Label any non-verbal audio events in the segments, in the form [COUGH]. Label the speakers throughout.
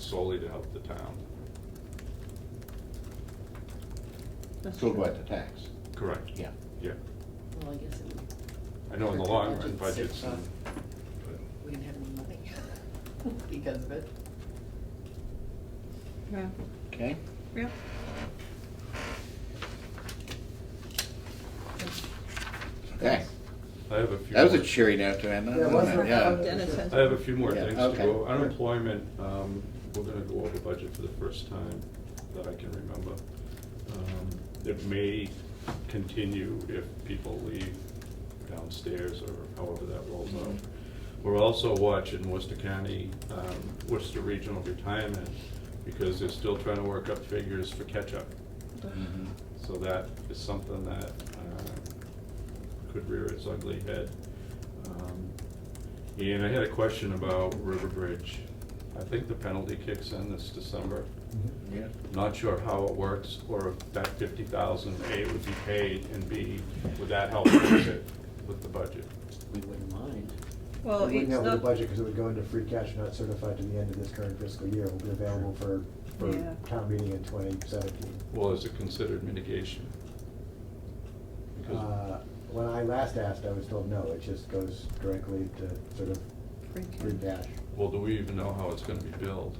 Speaker 1: solely to help the town.
Speaker 2: That's
Speaker 3: So
Speaker 2: true.
Speaker 3: about the tax,
Speaker 1: Correct.
Speaker 3: yeah.
Speaker 1: Yeah,
Speaker 4: Well, I guess it would-
Speaker 1: I know in the
Speaker 4: Budget
Speaker 1: long run,
Speaker 4: sits
Speaker 1: budgets,
Speaker 4: on-
Speaker 1: but
Speaker 4: we didn't have any money [LAUGHS] because of it.
Speaker 2: Yeah,
Speaker 3: Okay,
Speaker 2: yeah.
Speaker 3: okay.
Speaker 1: I have a few.
Speaker 3: That was a
Speaker 1: more-
Speaker 3: cheery note to end on.
Speaker 5: Yeah, it wasn't
Speaker 3: wasn't it?
Speaker 5: that-
Speaker 3: Yeah.
Speaker 2: Dennis has.
Speaker 1: I have a few more
Speaker 3: Yeah,
Speaker 1: things to
Speaker 3: okay.
Speaker 1: go. Unemployment, um, we're gonna go over budget for the first time that I can remember. Um, It may continue if people leave downstairs or however that rolls
Speaker 3: Mm-hmm.
Speaker 1: out. We're also watching Worcester County, um, Worcester Regional Retirement, because they're still trying to work up figures for catch-up.
Speaker 3: Mhm.
Speaker 1: So that is something that uh, could rear its ugly head. Um, And I had a question about River Bridge. I think the penalty kicks in this December.
Speaker 5: Mm-hmm.
Speaker 3: Yeah.
Speaker 1: Not sure how it works, or if that fifty thousand, A, would be paid, and B, would that help fix it with the budget?
Speaker 6: We wouldn't mind.
Speaker 2: Well,
Speaker 5: We
Speaker 2: it's
Speaker 5: wouldn't have the
Speaker 2: not,
Speaker 5: budget because it would go into free cash not certified to the end of this current fiscal year. It will be available for, for
Speaker 2: Yeah.
Speaker 5: town meeting in twenty seventeen.
Speaker 1: Well, is it considered mitigation? Because
Speaker 5: Uh, When I last asked, I was told no, it just goes directly to sort of
Speaker 2: Free cash.
Speaker 5: free cash.
Speaker 1: Well, do we even know how it's gonna be billed?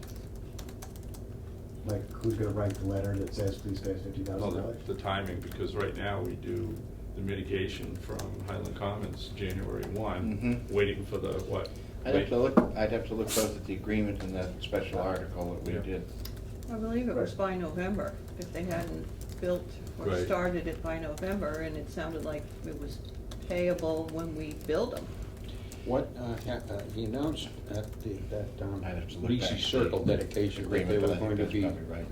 Speaker 5: Like, who's gonna write the letter that says, please pay us fifty
Speaker 1: Well,
Speaker 5: thousand
Speaker 1: the-
Speaker 5: dollars?
Speaker 1: The timing, because right now we do the mitigation from Highland Commons, January one,
Speaker 5: Mm-hmm.
Speaker 3: Mhm.
Speaker 1: waiting for the, what?
Speaker 3: I'd have to look, I'd have to look both at the agreement and that special article that we
Speaker 1: Yeah.
Speaker 3: did.
Speaker 6: Mm-hmm.
Speaker 2: I believe it was by November, if they hadn't built or
Speaker 1: Right.
Speaker 2: started it by November, and it sounded like it was payable when we build them.
Speaker 6: What, uh, ha- uh, he announced at the, that, um,
Speaker 3: I'd have to look back.
Speaker 6: BC Circle dedication, that they
Speaker 3: Agreement, but
Speaker 6: were
Speaker 3: I think
Speaker 6: going to
Speaker 3: that's
Speaker 6: be,
Speaker 3: probably right.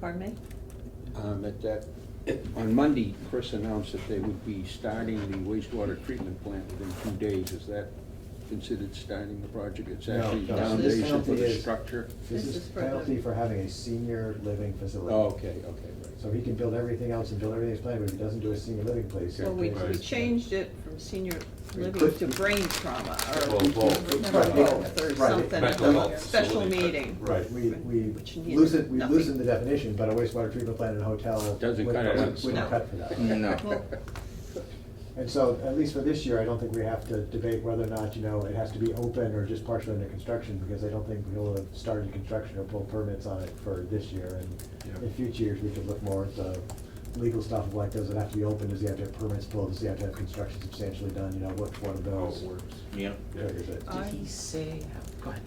Speaker 2: Pardon me?
Speaker 6: um, at that, on Monday, Chris announced that they would be starting the wastewater treatment plant within two days. Is that considered starting the project? It's
Speaker 5: No,
Speaker 6: actually
Speaker 5: no.
Speaker 6: foundation for
Speaker 5: Penalty
Speaker 6: the
Speaker 5: is-
Speaker 6: structure?
Speaker 5: This
Speaker 2: This
Speaker 5: is
Speaker 2: is for the-
Speaker 5: penalty for having a senior living facility.
Speaker 6: Oh, okay, okay, right.
Speaker 5: So he can build everything else and build everything he's planning, but if he doesn't do a senior living place. he
Speaker 2: Well, we,
Speaker 5: pays
Speaker 2: we
Speaker 5: us.
Speaker 2: changed it from senior living
Speaker 5: could-
Speaker 2: to brain trauma, or
Speaker 1: Well, well,
Speaker 2: remember
Speaker 5: Right.
Speaker 2: both, or
Speaker 5: Right.
Speaker 2: something,
Speaker 1: Mental
Speaker 2: like
Speaker 1: health
Speaker 2: special
Speaker 1: facility, but-
Speaker 2: meeting.
Speaker 1: Right.
Speaker 5: We, we
Speaker 2: Which needed
Speaker 5: loosen, we
Speaker 2: nothing.
Speaker 5: loosen the definition, but a wastewater treatment plant and hotel
Speaker 6: Doesn't
Speaker 5: wouldn't,
Speaker 6: cut it.
Speaker 5: wouldn't
Speaker 2: No.
Speaker 5: wouldn't cut for that.
Speaker 3: No.
Speaker 2: Well,
Speaker 5: And so, at least for this year, I don't think we have to debate whether or not, you know, it has to be open or just partially under construction, because I don't think we'll have started construction or pulled permits on it for this year. And
Speaker 1: Yeah.
Speaker 5: in future years, we could look more at the legal stuff of like, does it have to be open, does he have to have permits pulled, does he have to have construction substantially done, you know, what, what of
Speaker 1: How it
Speaker 5: those?
Speaker 1: works.
Speaker 3: [LAUGHS] Yeah.
Speaker 5: triggers it?
Speaker 2: I-
Speaker 4: say, go ahead.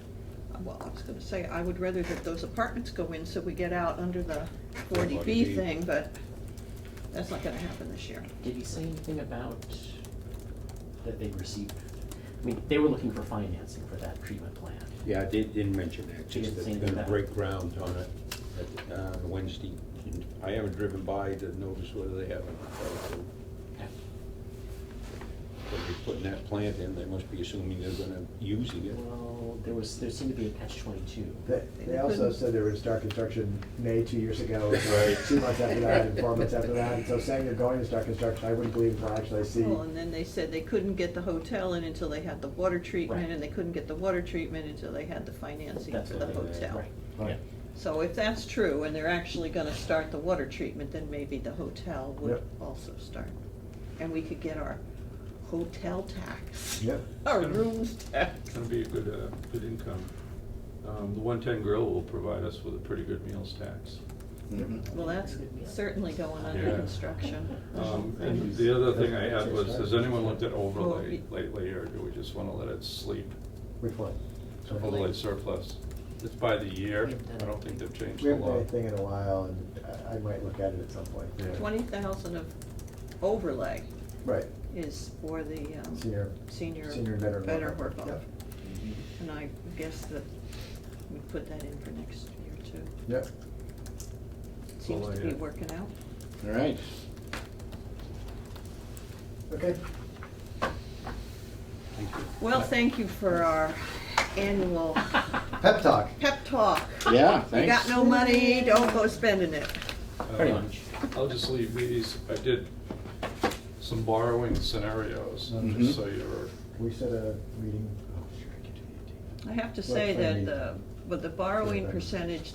Speaker 2: Well, I was gonna say, I would rather that those apartments go in so we get out under the forty B
Speaker 6: 40B.
Speaker 2: thing, but that's not gonna happen this year.
Speaker 7: Did he say anything about that they received, I mean, they were looking for financing for that treatment plant.
Speaker 6: Yeah, I did, didn't mention that,
Speaker 7: Didn't
Speaker 6: just that
Speaker 7: say
Speaker 6: they're gonna
Speaker 7: that.
Speaker 6: break ground on it at, uh, Wednesday. And I haven't driven by to notice whether they have it. or not. If they're putting that plant in, they must be assuming they're gonna using it.
Speaker 7: Well, there was, there seemed to be a catch twenty-two.
Speaker 5: They, they also said they were gonna start construction May two years ago,
Speaker 1: Right.
Speaker 5: two months after that, and four months after that, and so saying they're going to start construction, I wouldn't believe until actually I see.
Speaker 2: Well, and then they said they couldn't get the hotel in until they had the water treatment,
Speaker 7: Right.
Speaker 2: and they couldn't get the water treatment until they had the financing
Speaker 7: That's
Speaker 2: for
Speaker 7: what
Speaker 2: the
Speaker 7: they-
Speaker 2: hotel.
Speaker 7: Right,
Speaker 4: [LAUGHS]
Speaker 5: Right.
Speaker 7: yeah.
Speaker 2: So if that's true, and they're actually gonna start the water treatment, then maybe the hotel would
Speaker 5: Yep.
Speaker 2: also start. And we could get our hotel tax.
Speaker 5: Yep.
Speaker 2: Our rooms tax.
Speaker 1: It's gonna be a good, uh, good income. Um, The one-ten grill will provide us with a pretty good meals tax.
Speaker 3: Mhm.
Speaker 2: Well, that's certainly going under
Speaker 1: Yeah.
Speaker 2: construction.
Speaker 1: Um, And the other thing I had was, has anyone looked at overlay lately, or do we just wanna let it sleep?
Speaker 5: Which one?
Speaker 1: Overlay surplus. It's by the year. I don't think they've changed
Speaker 5: We
Speaker 1: the
Speaker 5: haven't done
Speaker 1: law.
Speaker 5: anything in a while, and I, I might look at it at some point.
Speaker 1: Yeah.
Speaker 2: Twenty thousand of overlay
Speaker 5: Right,
Speaker 2: is for the, um,
Speaker 5: Senior-
Speaker 2: senior,
Speaker 5: senior veteran
Speaker 2: better
Speaker 5: worker.
Speaker 2: work off.
Speaker 5: Yep.
Speaker 2: And I guess that we put that in for next year too.
Speaker 5: yep.
Speaker 2: Seems
Speaker 1: Well,
Speaker 2: to
Speaker 1: yeah.
Speaker 2: be working out.
Speaker 3: All right.
Speaker 5: Okay,
Speaker 2: Well, thank you for our
Speaker 5: [LAUGHS]
Speaker 2: annual
Speaker 5: pep talk.
Speaker 2: pep talk.
Speaker 3: Yeah,
Speaker 2: You got
Speaker 3: thanks.
Speaker 2: no money, don't go spending it.
Speaker 7: Pretty
Speaker 1: Um,
Speaker 7: much.
Speaker 1: I'll just leave these. I did some borrowing scenarios,
Speaker 3: Mhm.
Speaker 1: just
Speaker 7: Mm-hmm.
Speaker 1: so you're,
Speaker 5: Can we set a meeting? Oh, sure, I can do the 18th.
Speaker 2: I have to say
Speaker 5: Well, I
Speaker 2: that
Speaker 5: mean-
Speaker 2: the but the borrowing
Speaker 5: Sure.
Speaker 2: percentage